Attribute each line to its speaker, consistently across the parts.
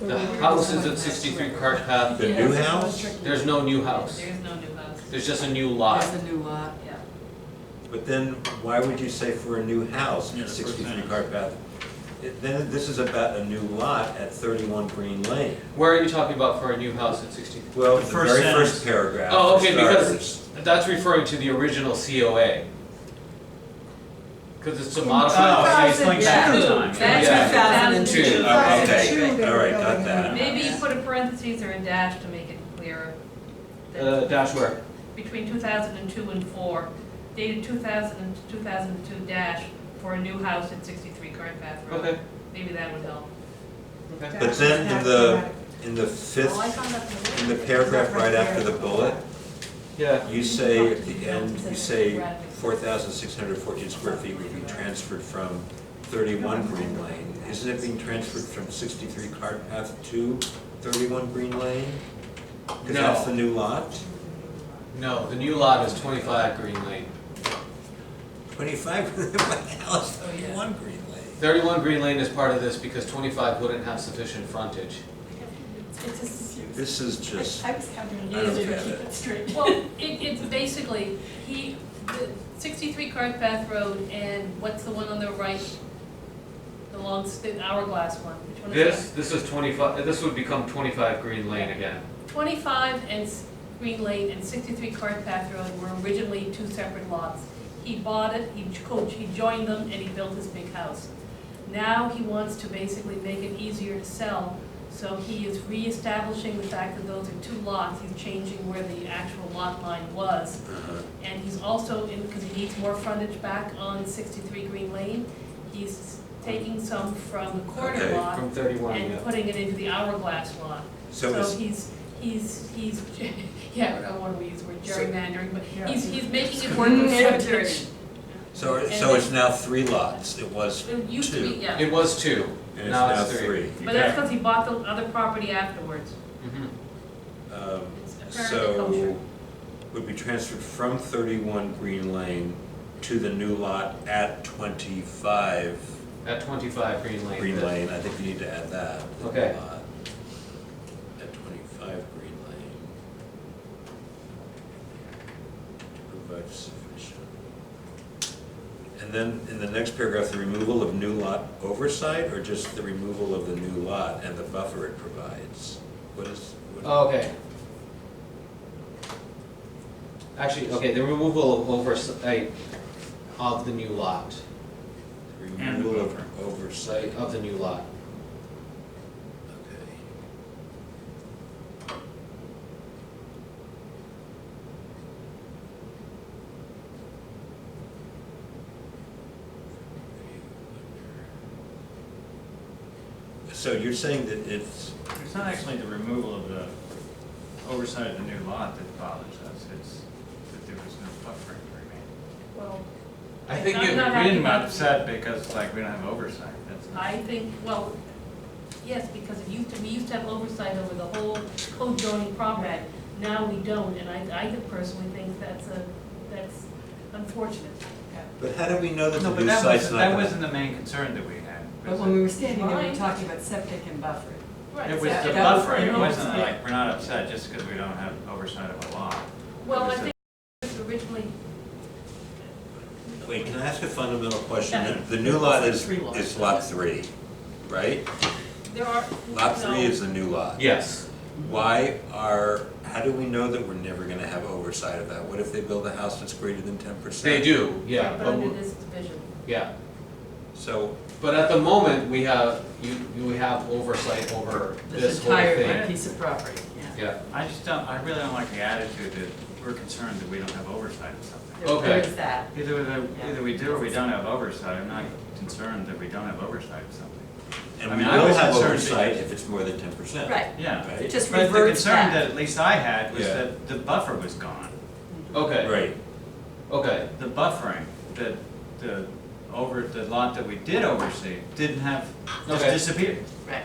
Speaker 1: The house is at sixty-three Cart Path,
Speaker 2: The new house,
Speaker 1: there's no new house,
Speaker 3: There's no new house.
Speaker 1: there's just a new lot.
Speaker 4: There's a new lot.
Speaker 3: Yeah.
Speaker 2: but then why would you say for a new house,
Speaker 5: Yeah, that's what I'm
Speaker 2: sixty-three
Speaker 5: saying.
Speaker 2: Cart Path? It- Then this is about a new lot at thirty-one Green Lane.
Speaker 1: Where are you talking about for a new house at sixty?
Speaker 2: Well,
Speaker 5: The
Speaker 2: the
Speaker 5: first
Speaker 2: very
Speaker 5: sentence.
Speaker 2: first paragraph.
Speaker 1: Oh,
Speaker 2: for
Speaker 1: okay, because-
Speaker 2: starters.
Speaker 1: That's referring to the original COA. Cause it's a
Speaker 5: Oh, so
Speaker 1: modified.
Speaker 5: he's playing
Speaker 4: Yeah.
Speaker 5: second time.
Speaker 4: That's
Speaker 1: Yeah.
Speaker 4: 2002.
Speaker 1: Two.
Speaker 2: Oh,
Speaker 3: Two,
Speaker 2: Okay,
Speaker 6: they
Speaker 2: all
Speaker 6: were
Speaker 2: right,
Speaker 6: building
Speaker 2: got
Speaker 6: on.
Speaker 2: that.
Speaker 3: Maybe you put a parentheses or a dash to make it clearer. that
Speaker 1: Uh, dash where?
Speaker 3: Between two thousand and two and four, dated two thousand and two thousand and two dash for a new house at sixty-three Current Path Road.
Speaker 1: Okay,
Speaker 3: Maybe that would help.
Speaker 1: okay.
Speaker 2: But then in the, in the
Speaker 4: Oh, I
Speaker 2: fifth,
Speaker 4: found out the-
Speaker 2: in the paragraph right after the bullet,
Speaker 1: Yeah,
Speaker 2: you say, at the end, you say four thousand six hundred fourteen square feet would be transferred from thirty-one Green Lane. Isn't it being transferred from sixty-three Cart Path to thirty-one Green Lane? Because
Speaker 1: No.
Speaker 2: that's the new lot?
Speaker 1: no, the new lot is twenty-five Green Lane.
Speaker 2: Twenty-five, what the hell is
Speaker 3: Oh, yeah.
Speaker 2: thirty-one Green Lane?
Speaker 1: Thirty-one Green Lane is part of this because twenty-five wouldn't have sufficient frontage.
Speaker 6: It's just,
Speaker 2: This is just,
Speaker 6: I was having
Speaker 2: I
Speaker 6: an
Speaker 2: don't
Speaker 6: easier to
Speaker 2: get
Speaker 6: keep
Speaker 2: it.
Speaker 6: it straight.
Speaker 3: Well, it, it's basically, he, the sixty-three Current Path Road and what's the one on the right? The long, s- the hourglass one, which one is that?
Speaker 1: This, this is twenty-five, this would become twenty-five Green Lane again.
Speaker 3: 25 and S- Green Lane and 63 Cart Path Road were originally two separate lots. He bought it, he co- he joined them, and he built his big house. Now he wants to basically make it easier to sell, so he is reestablishing the fact that those are two lots. He's changing where the actual lot line was.
Speaker 2: uh-huh,
Speaker 3: And he's also, because he needs more frontage back on 63 Green Lane, he's taking some from the corner
Speaker 2: Okay,
Speaker 3: lot
Speaker 1: From thirty-one,
Speaker 3: and
Speaker 1: yeah.
Speaker 3: putting it into the hourglass lot.
Speaker 2: so
Speaker 3: So
Speaker 2: it's,
Speaker 3: he's, he's, he's, yeah, I don't want to use the word gerrymandering, but
Speaker 6: Yeah.
Speaker 3: he's, he's making it work with frontage.
Speaker 2: so, it-
Speaker 3: and
Speaker 2: so it's now three lots, it was,
Speaker 3: It used to be,
Speaker 2: Two.
Speaker 3: yeah,
Speaker 1: It was two,
Speaker 2: and it's
Speaker 1: Now
Speaker 2: now
Speaker 1: it's three.
Speaker 2: three.
Speaker 3: but that's because he bought the other property afterwards.
Speaker 1: Mhm.
Speaker 2: Um,
Speaker 3: It's apparently kosher.
Speaker 2: So, would be transferred from thirty-one Green Lane to the new lot at twenty-five
Speaker 1: at twenty-five Green Lane.
Speaker 2: Green Lane, I think you need to add that. the new
Speaker 1: Okay.
Speaker 2: lot At twenty-five Green Lane. To provide sufficient. And then, in the next paragraph, the removal of new lot oversight, or just the removal of the new lot and the buffer it provides? What is? what-
Speaker 1: Oh, Okay. Actually, okay, the removal of oversight of the new lot,
Speaker 5: And the
Speaker 2: Removal
Speaker 5: buffer.
Speaker 2: of oversight,
Speaker 1: like, of the new lot.
Speaker 2: okay. So you're saying that it's,
Speaker 5: It's not actually the removal of the oversight of the new lot that bothers us, it's that there was no buffering remaining.
Speaker 3: Well,
Speaker 1: I think
Speaker 3: I'm not
Speaker 1: it,
Speaker 5: We didn't
Speaker 3: happy about-
Speaker 5: upset because like we don't have oversight, that's.
Speaker 3: I think, well, yes, because it used to, we used to have oversight over the whole co-joining property. Now we don't, and I, I personally think that's a, that's unfortunate.
Speaker 2: but how do we know that
Speaker 5: No,
Speaker 2: the
Speaker 5: but
Speaker 2: new
Speaker 5: that
Speaker 2: site's
Speaker 5: wasn't,
Speaker 2: not
Speaker 5: that
Speaker 2: gonna?
Speaker 5: wasn't the main concern that we had.
Speaker 4: But
Speaker 5: was
Speaker 4: when we
Speaker 5: it?
Speaker 4: were standing there, we were
Speaker 3: Right.
Speaker 4: talking about septic and buffer.
Speaker 3: Right.
Speaker 5: It was
Speaker 4: that-
Speaker 5: the
Speaker 4: that was
Speaker 5: buffering, it
Speaker 4: the
Speaker 5: wasn't
Speaker 4: oversight.
Speaker 5: like, we're not upset just because we don't have oversight of a lot.
Speaker 3: Well, I
Speaker 5: Oversight-
Speaker 3: think originally,
Speaker 2: Wait, can I ask a fundamental question?
Speaker 3: Yeah.
Speaker 2: The the new lot
Speaker 6: It's
Speaker 2: is,
Speaker 6: three lots.
Speaker 2: is lot three, right?
Speaker 3: there are.
Speaker 2: Lot three
Speaker 3: no.
Speaker 2: is the new lot.
Speaker 1: yes,
Speaker 2: Why are, how do we know that we're never gonna have oversight of that? What if they build a house that's greater than ten percent?
Speaker 1: they do, yeah,
Speaker 3: But
Speaker 1: but,
Speaker 3: under
Speaker 1: we-
Speaker 3: this division.
Speaker 1: yeah.
Speaker 2: So,
Speaker 1: But at the moment, we have, you, you have oversight over this
Speaker 4: This
Speaker 1: whole
Speaker 4: entire
Speaker 1: thing.
Speaker 4: piece of property, yeah.
Speaker 1: Yeah,
Speaker 5: I just don't, I really don't like the attitude that we're concerned that we don't have oversight of something.
Speaker 4: There- There
Speaker 1: Okay.
Speaker 4: is that.
Speaker 5: Either, the- either we do or we don't have oversight, I'm not concerned that we don't have oversight of something.
Speaker 2: and
Speaker 5: I
Speaker 2: we
Speaker 5: mean, I
Speaker 2: will
Speaker 5: was
Speaker 2: have
Speaker 5: concerned
Speaker 2: oversight
Speaker 5: because-
Speaker 2: if it's more than ten percent.
Speaker 4: Right,
Speaker 5: Yeah.
Speaker 2: Right?
Speaker 4: just
Speaker 5: But the
Speaker 4: reverse
Speaker 5: concern that
Speaker 4: that.
Speaker 5: at least I had was
Speaker 2: Yeah.
Speaker 5: that the buffer was gone,
Speaker 1: okay,
Speaker 2: Right,
Speaker 1: okay,
Speaker 5: the buffering, that the over, the lot that we did oversee didn't have,
Speaker 4: Ah.
Speaker 5: just
Speaker 1: Okay.
Speaker 5: disappeared.
Speaker 4: Right.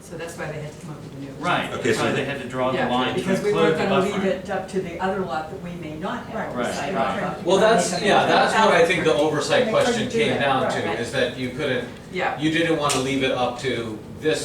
Speaker 4: So that's why they had to come up with a new.
Speaker 5: Right,
Speaker 2: Okay,
Speaker 5: that's
Speaker 2: so
Speaker 5: why
Speaker 2: the-
Speaker 5: they had to draw the
Speaker 4: Yeah,
Speaker 5: line to
Speaker 4: because we
Speaker 5: include
Speaker 4: weren't
Speaker 5: the
Speaker 4: gonna leave
Speaker 5: buffering.
Speaker 4: it up to the other lot that we may not
Speaker 6: Right.
Speaker 4: have
Speaker 5: Right,
Speaker 4: oversight of.
Speaker 5: right.
Speaker 1: well, that's, yeah, that's what I think the oversight
Speaker 6: They couldn't
Speaker 1: question
Speaker 6: do
Speaker 1: came
Speaker 6: that,
Speaker 1: down
Speaker 6: right.
Speaker 1: to, is that you couldn't,
Speaker 4: Yeah.
Speaker 1: you didn't wanna leave it up to this